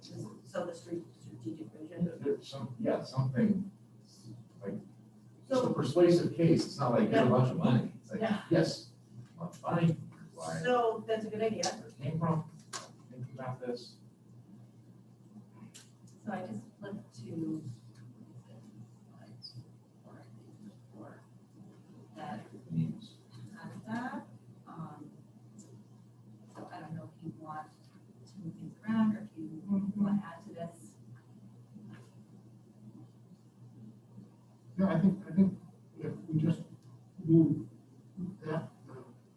so the stra- strategic vision. There's some, yeah, something, like, just a So- persuasive case, it's not like, here's a Yeah. bunch of money, it's like, Yeah. yes, bunch of money, here's why So that's a good idea, it came from, think about this. so I just flipped to. That means. has that, um, so I don't know if you want to move things around or if you want to add to this. No, I think, I think if we just move that uh,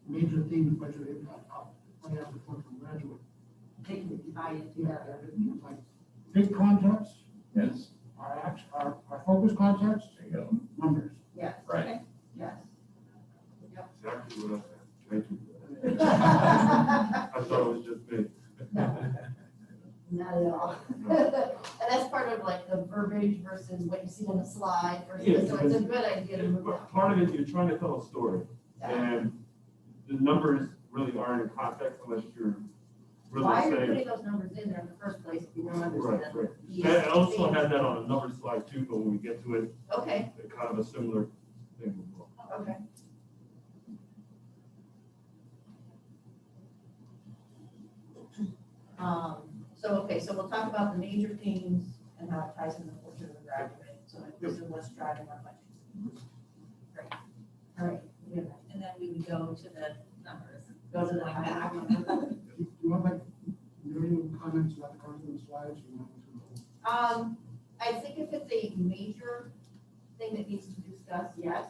major theme of budget impact up, I have to point from graduate. They can divide it Yeah, together. it's like, big context, Yes, our act, our, our focus context, there you go. numbers. Yes. Right. Okay. Yes. Exactly what I said. Thank you. Not I thought it was just me. at all. And that's part of like the verbiage versus what you see on the slide versus, Yeah, so it's a good idea to move But up. Part of it, you're trying to tell a story, Yeah. and the numbers really aren't in context unless you're really Why are you saying. putting those numbers in there in the first place if you don't understand? Right, right. the I I also thing? had that on another slide too, but when we get to it, Okay, it kind of a similar thing. will go. okay. Um, so, okay, so we'll talk about the major themes and how it ties into the culture of the graduate, so this is what's driving our budget. Great. All right, we have that. And then we would go to the numbers. go to the Going back. Do you do you want like, million comments about the content slides? you want to- Um, I think if it's a major thing that needs to be discussed, yes.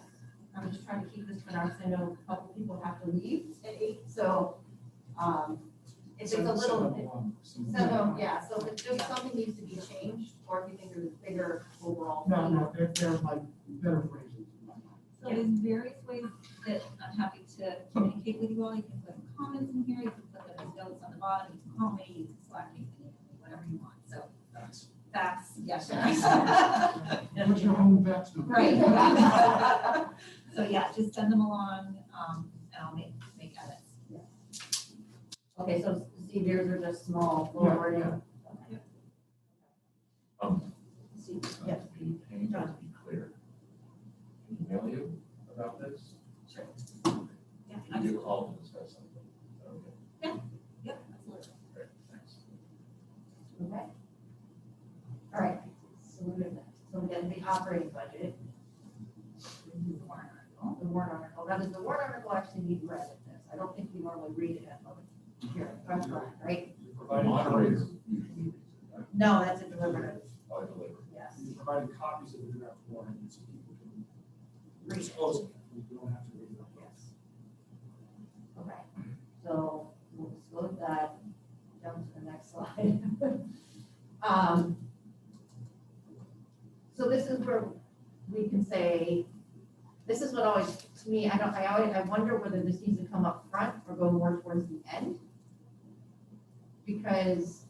I'm just trying to keep this for now, because I know a couple people have to leave at eight, so, um, if it's a little, so, no, yeah, so if it's just something needs to be changed, or if you think there's a bigger overall. No, no, they're, they're like better phrases. in my mind. So there's various ways that I'm happy to communicate with you all. You can put comments in here, you can put those notes on the bottom, you can call me, you can Slack me, you can whatever you want, so. Facts, yes. What's your home vets number? Right. So yeah, just send them along, um, and I'll make, make edits. Okay, so see, there's are just small, Yeah, yeah. lower, yeah. Um, See, uh, yeah. Be pained, to be clear. Email you about this? Sure. Yeah, Can you all discuss something? Okay, yeah, absolutely. great, thanks. Okay. All right, so we're doing that. So we got the operating budget. The warrant article. The warrant article. Now, does the warrant article actually need read at this? I don't think we normally read it at public hearing, if I'm correct, right? You The provided copies, moderator usually reads it, right? No, that's a deliberative, I deliver. yes. you provided copies of the draft warrant, so people can Read it, dispose of it. You don't have to read it. yes. All right, so we'll disclose that, jump to the next slide. Um, So this is where we can say, this is what always, to me, I don't, I always, I wonder whether this needs to come up front or go more towards the end. Because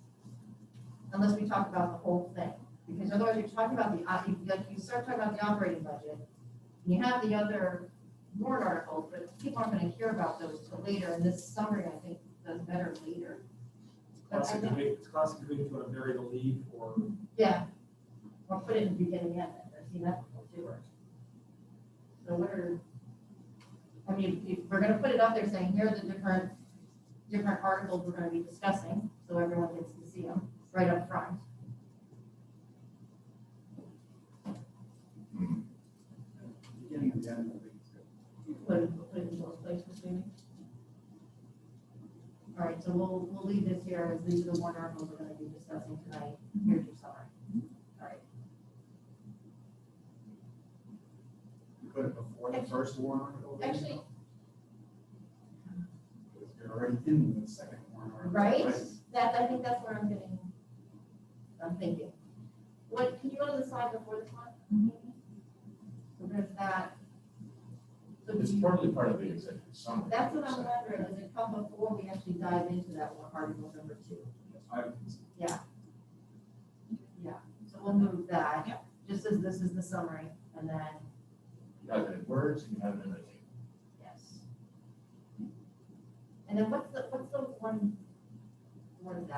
unless we talk about the whole thing, because otherwise you're talking about the, op- you- like you start talking about the operating budget. and You have the other warrant articles, but people aren't gonna hear about those till later, and this summary, I think, does better later. But I Classic, think- committee- it's classic committee, if you want to bury the lead or Yeah, or put it in the beginning and end, I've seen that before too. So what are, I mean, if we're gonna put it up there saying, here are the different, different articles we're gonna be discussing, so everyone gets to see them right up front. Beginning and the end, I think it's good. Put it, put it in both places, maybe. All right, so we'll, we'll leave this here, as these are the one articles we're gonna be discussing tonight, here's your summary. All right, You put it before the first warrant article. then? Actually- Because You're already in the second warrant article. Right, that, I think that's where I'm getting, I'm thinking. What, could you go to the slide before this one? So there's that. So do It's you- partly part of the executive summary. That's what I'm so- wondering, does it come before we actually dive into that one, article number two? I, Yeah, so we'll move that. Just as this is the summary, and then, You have it in words, and you have it in a table. yes. And then what's the, what's the one, one that?